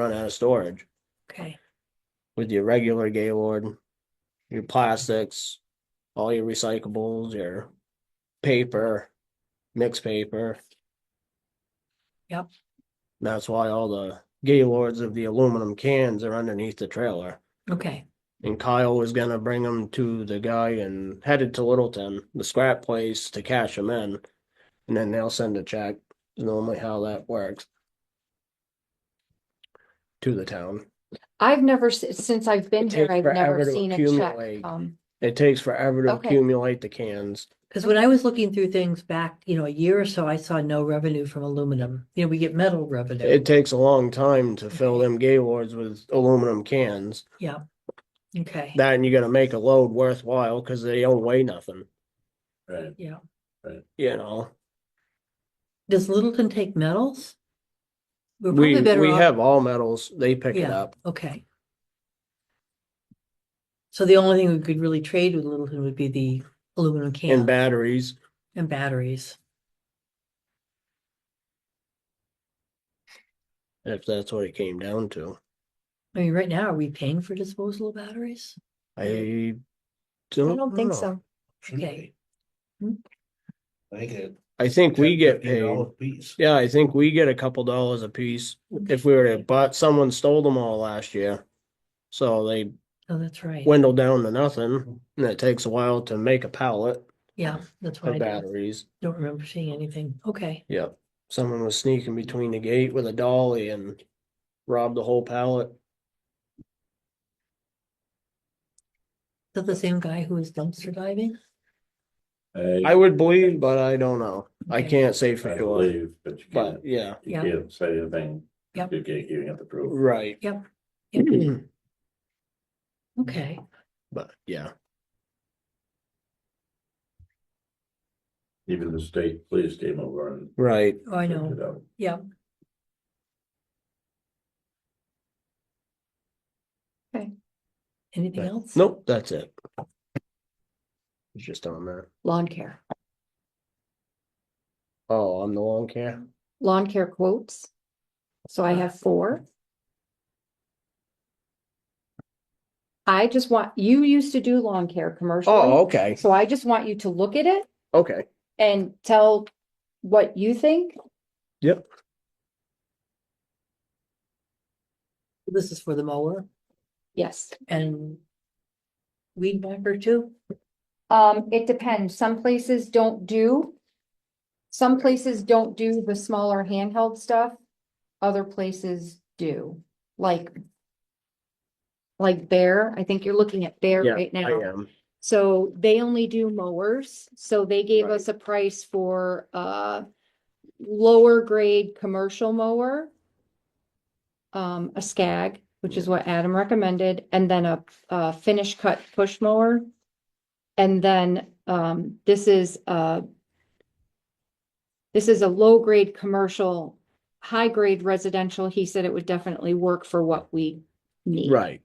run out of storage Okay, with your regular Gaylord, your plastics, all your recyclables, your paper, mixed paper. Yep. That's why all the Gaylords of the aluminum cans are underneath the trailer. okay, And Kyle was gonna bring them to the guy and headed to Littleton, the scrap place, to cash them in. And then they'll send a check, normally how that works. To the town. I've never, s- since I've been It here, takes I've forever never to seen a accumulate. check. Um, It takes forever to Okay. accumulate the cans. because when I was looking through things back, you know, a year or so, I saw no revenue from aluminum. You know, we get metal revenue. It takes a long time to fill them Gaylords with aluminum cans. Okay, That and you gotta make a load worthwhile because they don't weigh nothing, Right, yeah. you know? Does Littleton take metals? We're We, probably better we off- have all metals, they pick it Yeah. up. Okay. So the only thing we could really trade with Littleton would be the aluminum And can batteries, and batteries. if that's what it came down to. I mean, right now, are we paying for disposal of batteries? I I don't, don't think know. so. shouldn't Okay. Hmm. be. I think it. I think we get paid. $10 Piece. Yeah, I think we get a couple dollars a piece if we were to, but someone stole them all last year. So they Oh, that's right. dwindle down to nothing and it takes a while to make a pallet Yeah, that's what of I did. batteries. Don't remember seeing anything. Okay, Yep. Someone was sneaking between the gate with a dolly and robbed the whole pallet. is that the same guy who was dumpster diving? Uh, I would believe, but I don't know. I Okay. can't say for I sure, believe, but you but can't, yeah, you Yeah. can't say anything. Yeah. You can't, you have to prove. right. Yeah, Mm-hmm. Okay, But yeah, Even the state police came over and. right. oh, I know. checked it out. Yeah, anything Right. else? Nope, that's it. It's just on that. Lawn care, Oh, I'm the lawn care. lawn care quotes. So I have four. I just want, you used to do lawn care Oh, commercially, okay, so I just want you to look at it okay. and tell what you think. Yep. This is for the mower Yes. and weed whacker too? Um, it depends. Some places don't do. Some places don't do the smaller handheld stuff. Other places do, like. Like Bear, I think you're looking at Bear Yeah, right I now. am. So they only do mowers, so they gave Right. us a price for a lower grade commercial mower. Um, a scag, which is what Adam recommended, and then a, a finish cut push mower. And then, um, this is a this is a low grade commercial, high grade residential. He said it would definitely work for what we need. Right.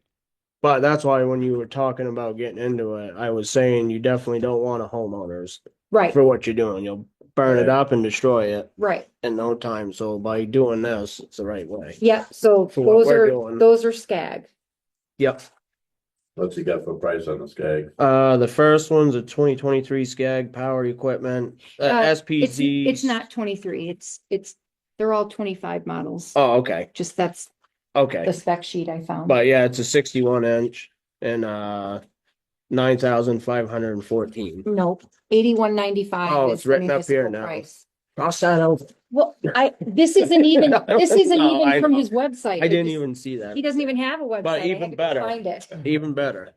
But that's why when you were talking about getting into it, I was saying you definitely don't want a homeowners Right, for what you're doing. You'll burn it Right. up and destroy it right. in no time. So by doing this, it's the right way. Yeah, so For what those we're are, doing. those are scag. Yep. What's he got for price on this guy? Uh, the first one's a twenty twenty-three Skag Power Equipment, uh, Uh, It's, SPZ. it's not twenty-three, it's, it's, they're all twenty-five models. Oh, okay, Just that's okay. the spec sheet I found. But yeah, it's a sixty-one inch and, uh, nine thousand five hundred and fourteen. Nope, eighty-one ninety-five. Oh, it's written up here now. Cross that out. Well, I, this isn't even, this isn't No, I even from know. his website. I It didn't just- even see that. He doesn't even have a website. I had even to go better. Find it, Even better.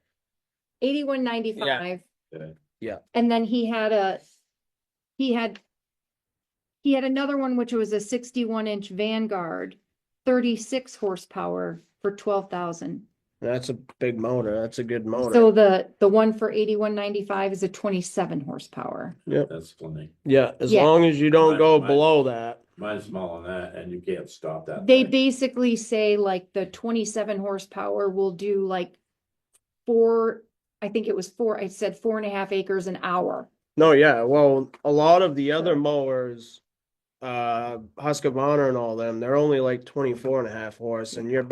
eighty-one ninety-five. Yeah. Yeah. And then he had a, he had, he had another one, which was a sixty-one inch Vanguard, thirty-six horsepower for twelve thousand. That's a big motor. That's a good So motor. the, the one for eighty-one ninety-five is a twenty-seven horsepower. That's plenty. Yeah, as Yeah. long as you don't Right, go right. below that. Mine's smaller than that and you can't stop that. They thing. basically say like the twenty-seven horsepower will do like four, I think it was four, I said four and a half acres an hour. No, yeah, well, a lot of the other Right. mowers, uh, Husqvarna and all them, they're only like 24 and a half horse and you're